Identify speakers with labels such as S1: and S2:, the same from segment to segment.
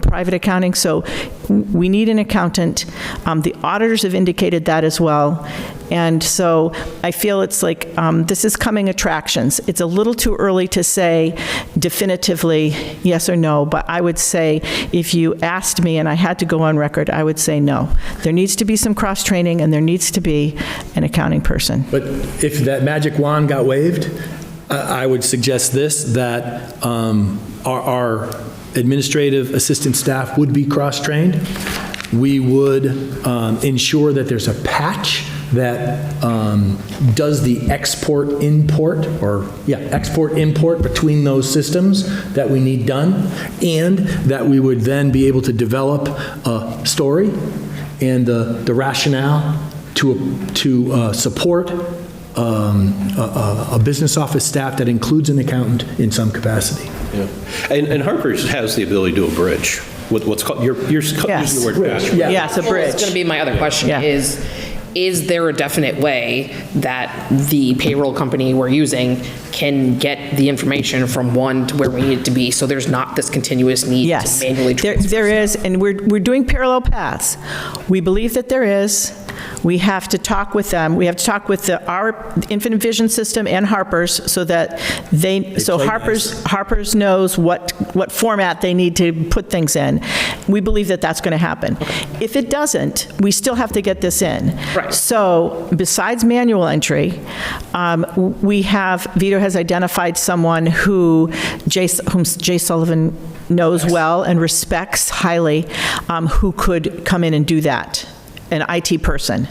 S1: private accounting, so we need an accountant. Um, The auditors have indicated that as well. And so I feel it's like, um, this is coming attractions. It's a little too early to say definitively yes or no, but I would say if you asked me and I had to go on record, I would say no. There needs to be some cross-training and there needs to be an accounting person.
S2: But if that magic wand got waved, I I would suggest this, that um, our- our administrative assistant staff would be cross-trained. We would um, ensure that there's a patch that um, does the export-import, or, yeah, export-import between those systems that we need done, and that we would then be able to develop a story and the the rationale to, to uh, support um, a a- a business office staff that includes an accountant in some capacity.
S3: Yeah. And, and Harper's has the ability to do a bridge, what- what's called, you're, you're using
S1: Yes.
S3: the word patch.
S2: Yeah.
S1: Yes, a
S4: Well, It's going to
S1: bridge.
S4: be my other question,
S1: Yeah.
S4: is, is there a definite way that the payroll company we're using can get the information from one to where we need it to be, so there's not this continuous need
S1: Yes.
S4: to manually
S1: There-
S4: transfer?
S1: There is, and we're, we're doing parallel paths. We believe that there is. We have to talk with them. We have to talk with the, our Infinite Vision System and Harper's so that they, so
S2: play
S1: Harper's, Harper's knows what, what format they need to put things in. We believe that that's going to happen. If it doesn't, we still have to get this in.
S4: Right.
S1: So besides manual entry, um, we have, Vito has identified someone who Jay, whom Jay Sullivan knows well and respects highly, um, who could come in and do that, an IT person.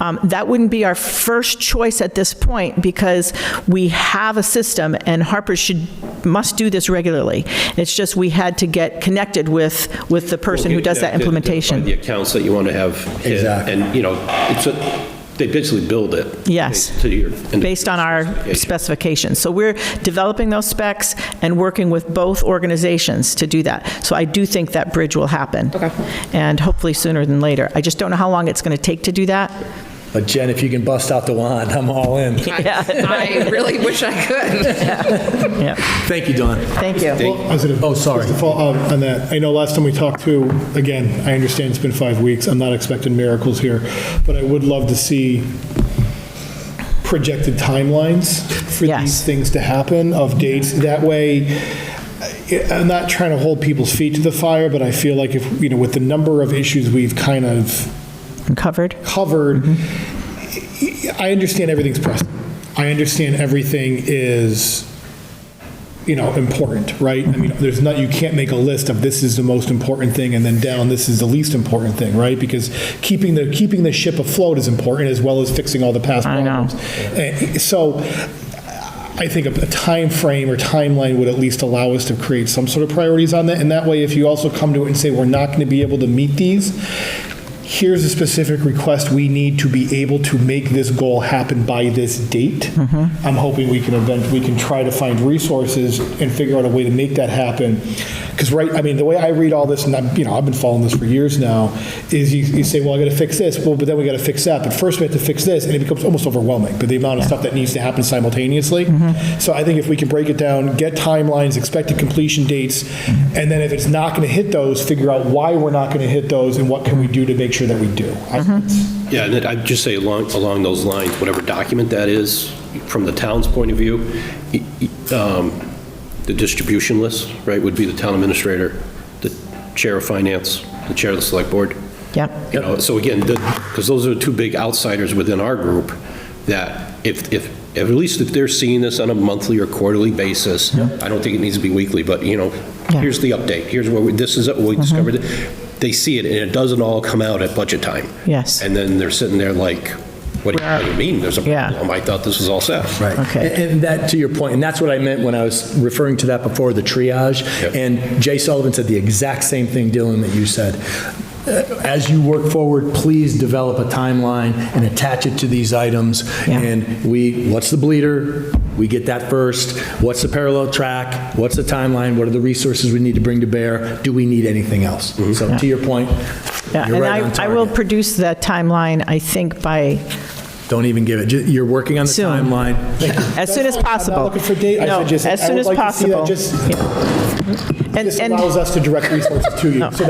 S1: Um, That wouldn't be our first choice at this point because we have a system and Harper should, must do this regularly. It's just we had to get connected with, with the person who does that
S3: Identify The
S1: implementation.
S3: accounts that you want to have hit,
S2: Exactly.
S3: and, you know, it's a, they basically build it.
S1: Yes.
S3: To your.
S1: based on our specifications. So we're developing those specs and working with both organizations to do that. So I do think that bridge will happen.
S4: Okay.
S1: And hopefully sooner than later. I just don't know how long it's going to take to do that.
S2: But Uh, Jen, if you can bust out the wand, I'm all in.
S4: I I really wish I could.
S1: Yeah,
S2: Thank you, Don.
S1: thank you.
S5: Positive.
S2: Oh, sorry.
S5: Just to follow up on um, that, I know last time we talked too, again, I understand it's been five weeks, I'm not expecting miracles here, but I would love to see projected timelines for
S1: Yes.
S5: these things to happen of dates. That way, I- I'm not trying to hold people's feet to the fire, but I feel like if, you know, with the number of issues we've kind of
S1: Covered?
S5: covered, I understand everything's pressed. I understand everything is, you know, important, right? I mean, there's not, you can't make a list of this is the most important thing and then down, this is the least important thing, right? Because keeping the, keeping the ship afloat is important as well as fixing all the past
S1: I know.
S5: problems. Eh, So I think a time frame or timeline would at least allow us to create some sort of priorities on that. And that way, if you also come to it and say, we're not going to be able to meet these, here's a specific request we need to be able to make this goal happen by this date. I'm hoping we can event, we can try to find resources and figure out a way to make that happen. Because right, I mean, the way I read all this, and I'm, you know, I've been following this for years now, is you, you say, well, I got to fix this, well, but then we got to fix that, but first we have to fix this, and it becomes almost overwhelming, but the amount of stuff that needs to happen simultaneously. So I think if we can break it down, get timelines, expected completion dates, and then if it's not going to hit those, figure out why we're not going to hit those, and what can we do to make sure that we do. I-
S3: Yeah, and then I'd just say along, along those lines, whatever document that is, from the town's point of view, y- y- um, the distribution list, right, would be the town administrator, the chair of finance, the chair of the select board.
S1: Yep.
S3: You know, so again, because those are two big outsiders within our group, that if, if, if- at least if they're seeing this on a monthly or quarterly basis, I don't think it needs to be weekly, but, you know,
S1: Yeah. Mm-hmm.
S3: here's the update, here's what, we- this is, what we discovered, they see it, and it doesn't all come out at budget time.
S1: Yes.
S3: And then they're sitting there like, what do you- what do you mean, there's a
S1: Yeah.
S3: problem? I thought this was all set.
S2: Right.
S1: Okay.
S2: And and that, to your point, and that's what I meant when I was referring to that before, the triage.
S3: Yep.
S2: And Jay Sullivan said the exact same thing, Dylan, that you said. Uh, As you work forward, please develop a timeline and attach it to these items.
S1: Yeah.
S2: And we, what's the bleeder? We get that first. What's the parallel track? What's the timeline? What are the resources we need to bring to bear? Do we need anything else? So to your point,
S1: Yeah,
S2: you're
S1: And
S2: right on
S1: I, I will
S2: target.
S1: produce that timeline, I think, by
S2: Don't even give it. Ju- You're working on the
S1: Soon.
S2: timeline. Thank you.
S1: As soon as
S5: That's fine.
S1: possible.
S5: I'm not looking for date, I
S1: No,
S5: said just,
S1: as
S5: I
S1: soon
S5: would
S1: as
S5: like to see
S1: possible.
S5: that just
S1: And-
S5: This
S1: and-
S5: allows us to direct resources to you. So